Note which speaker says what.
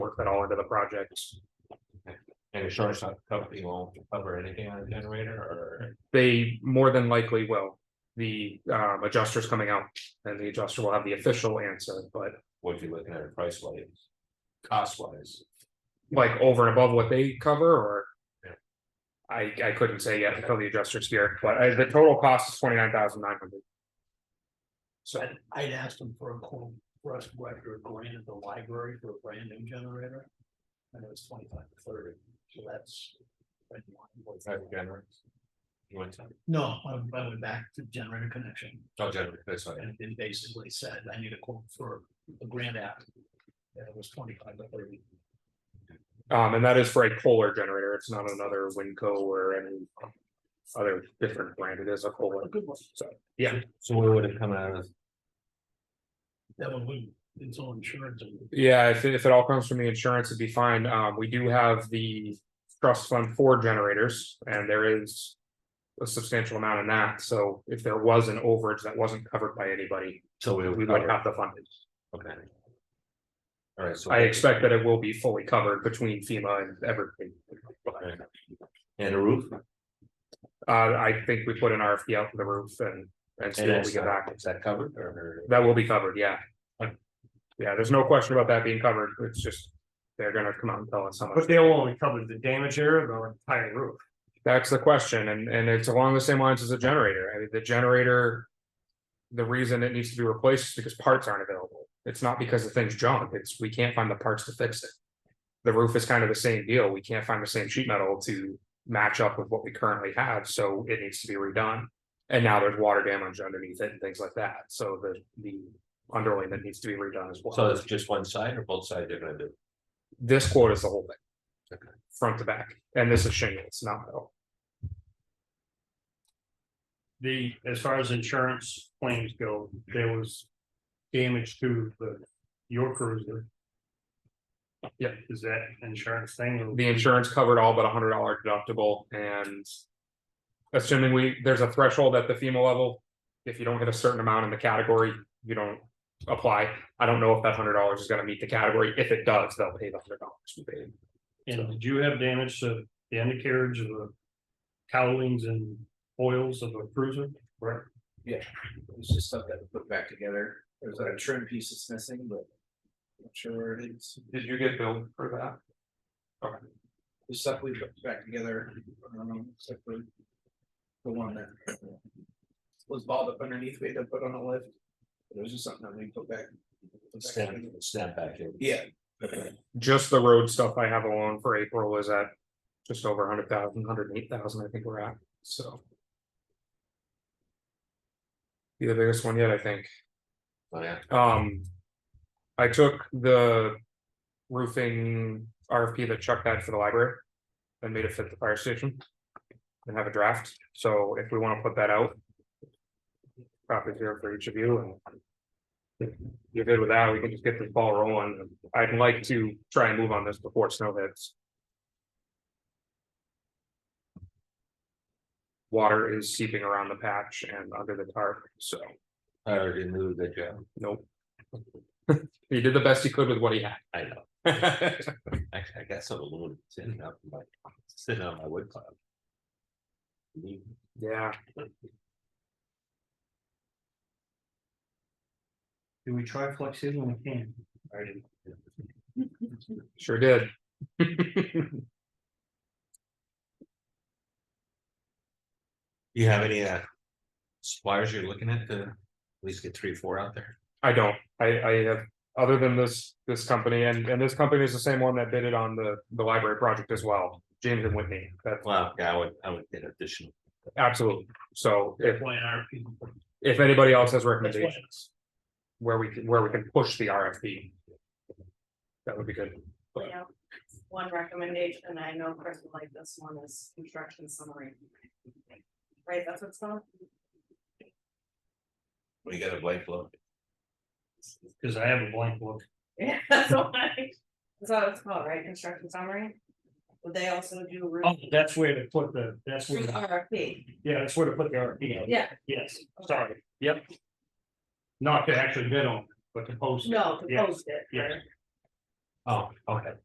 Speaker 1: work that all into the project.
Speaker 2: And insurance company won't cover anything on a generator or?
Speaker 1: They more than likely will. The um adjuster's coming out and the adjuster will have the official answer, but
Speaker 2: what you're looking at price wise, cost wise.
Speaker 1: like over and above what they cover or?
Speaker 2: Yeah.
Speaker 1: I I couldn't say yet until the adjuster's here, but uh, the total cost is twenty nine thousand nine hundred. So
Speaker 3: I'd- I'd asked them for a quote, for us to go after a grant at the library for a brand new generator. And it was twenty-five to thirty, so that's.
Speaker 2: You want to,
Speaker 3: No, I went- I went back to generator connection
Speaker 2: don't generate this one,
Speaker 3: and it basically said, I need a quote for a grant app. And it was twenty-five to thirty.
Speaker 1: um and that is for a Kohler generator. It's not another Winco or any. Other different brand. It is a Kohler.
Speaker 3: A good one.
Speaker 2: so where would it come out of?
Speaker 3: That one, wouldn't- it's all insurance and
Speaker 1: Yeah, if if it all comes from the insurance, it'd be fine. Um, we do have the trust fund for generators and there is. A substantial amount in that, so if there was an overage that wasn't covered by anybody,
Speaker 2: So we
Speaker 1: we would have to fund it.
Speaker 2: Okay. All right, so.
Speaker 1: I expect that it will be fully covered between FEMA and everything.
Speaker 2: And a roof?
Speaker 1: Uh, I think we put an RFP out for the roof and and see
Speaker 2: And
Speaker 1: what we
Speaker 2: that's
Speaker 1: get back.
Speaker 2: not- is that covered or?
Speaker 1: That will be covered, yeah. Yeah, there's no question about that being covered. It's just. They're gonna come out and tell us how much.
Speaker 4: But they'll only cover the damage area, the entire roof.
Speaker 1: That's the question, and and it's along the same lines as the generator, I mean, the generator. The reason it needs to be replaced is because parts aren't available, it's not because the thing's junk, it's we can't find the parts to fix it. The roof is kind of the same deal, we can't find the same sheet metal to match up with what we currently have, so it needs to be redone. And now there's water damage underneath it and things like that, so the the underlayment needs to be redone as well.
Speaker 2: So it's just one side or both sides they're gonna do?
Speaker 1: This quote is the whole thing.
Speaker 2: Okay.
Speaker 1: Front to back, and this is shingles, not metal.
Speaker 4: The, as far as insurance claims go, there was damage to the, your cruiser.
Speaker 1: Yep.
Speaker 4: Is that insurance thing?
Speaker 1: the insurance covered all but a hundred dollar deductible and. Assuming we, there's a threshold at the FEMA level, if you don't hit a certain amount in the category, you don't apply. I don't know if that hundred dollars is gonna meet the category, if it does, they'll pay the hundred dollars we paid.
Speaker 4: And did you have damage to the undercarriage of the cowlings and oils of a cruiser? Right.
Speaker 5: It was just stuff that we put back together. There's a trim piece that's missing, but. I'm not sure where it is.
Speaker 1: Did you get billed for that? Okay,
Speaker 5: The stuff we put back together, um, except for. The one that. Was balled up underneath, we had to put on a lift. It was just something that we put back. put back
Speaker 2: Snap,
Speaker 5: together.
Speaker 2: snap back in.
Speaker 5: Yeah,
Speaker 1: just the road stuff I have alone for April is at just over a hundred thousand, hundred and eight thousand, I think we're at, so. Be the biggest one yet, I think.
Speaker 2: Oh, yeah.
Speaker 1: Um. I took the roofing RFP that Chuck had for the library. And made it fit the fire station. And have a draft, so if we wanna put that out. Copy here for each of you and. if You're good with that, we can just get this ball rolling. I'd like to try and move on this before snow hits. Water is seeping around the patch and under the tarp, so.
Speaker 2: I already knew that, yeah,
Speaker 1: Nope. He did the best he could with what he had.
Speaker 2: I know. Actually, I got some aluminum sitting up, in my sitting on my wood pile.
Speaker 1: Yeah,
Speaker 4: Do we try flex seal when we can? I didn't.
Speaker 1: sure did.
Speaker 2: You have any uh suppliers you're looking at to at least get three, or four out there?
Speaker 1: I don't, I, I have, other than this, this company, and, and this company is the same one that bid it on the, the library project as well. James and Whitney, that's
Speaker 2: Well, yeah, I would, I would get additional.
Speaker 1: absolutely. So if,
Speaker 3: that's why our people.
Speaker 1: if anybody else has
Speaker 3: That's why
Speaker 1: recommendations where we can, where we can push the RFP. That would be good.
Speaker 6: You know, one recommendation, and I know Chris would like this one, is construction summary. Right, that's what's called?
Speaker 2: We got a blank look.
Speaker 4: Cause I have a blank look.
Speaker 6: Yeah, that's what I, that's what it's called, right, construction summary? Would they also do roof,
Speaker 4: Oh, that's where to put the, that's where,
Speaker 6: roof RFP?
Speaker 4: yeah, that's where to put the RFP. out.
Speaker 6: Yeah,
Speaker 4: Yes, sorry, yep. Not to actually bid on, but to post. it.
Speaker 6: no, to
Speaker 4: Yeah.
Speaker 6: post it.
Speaker 4: Yeah.
Speaker 2: Oh, okay.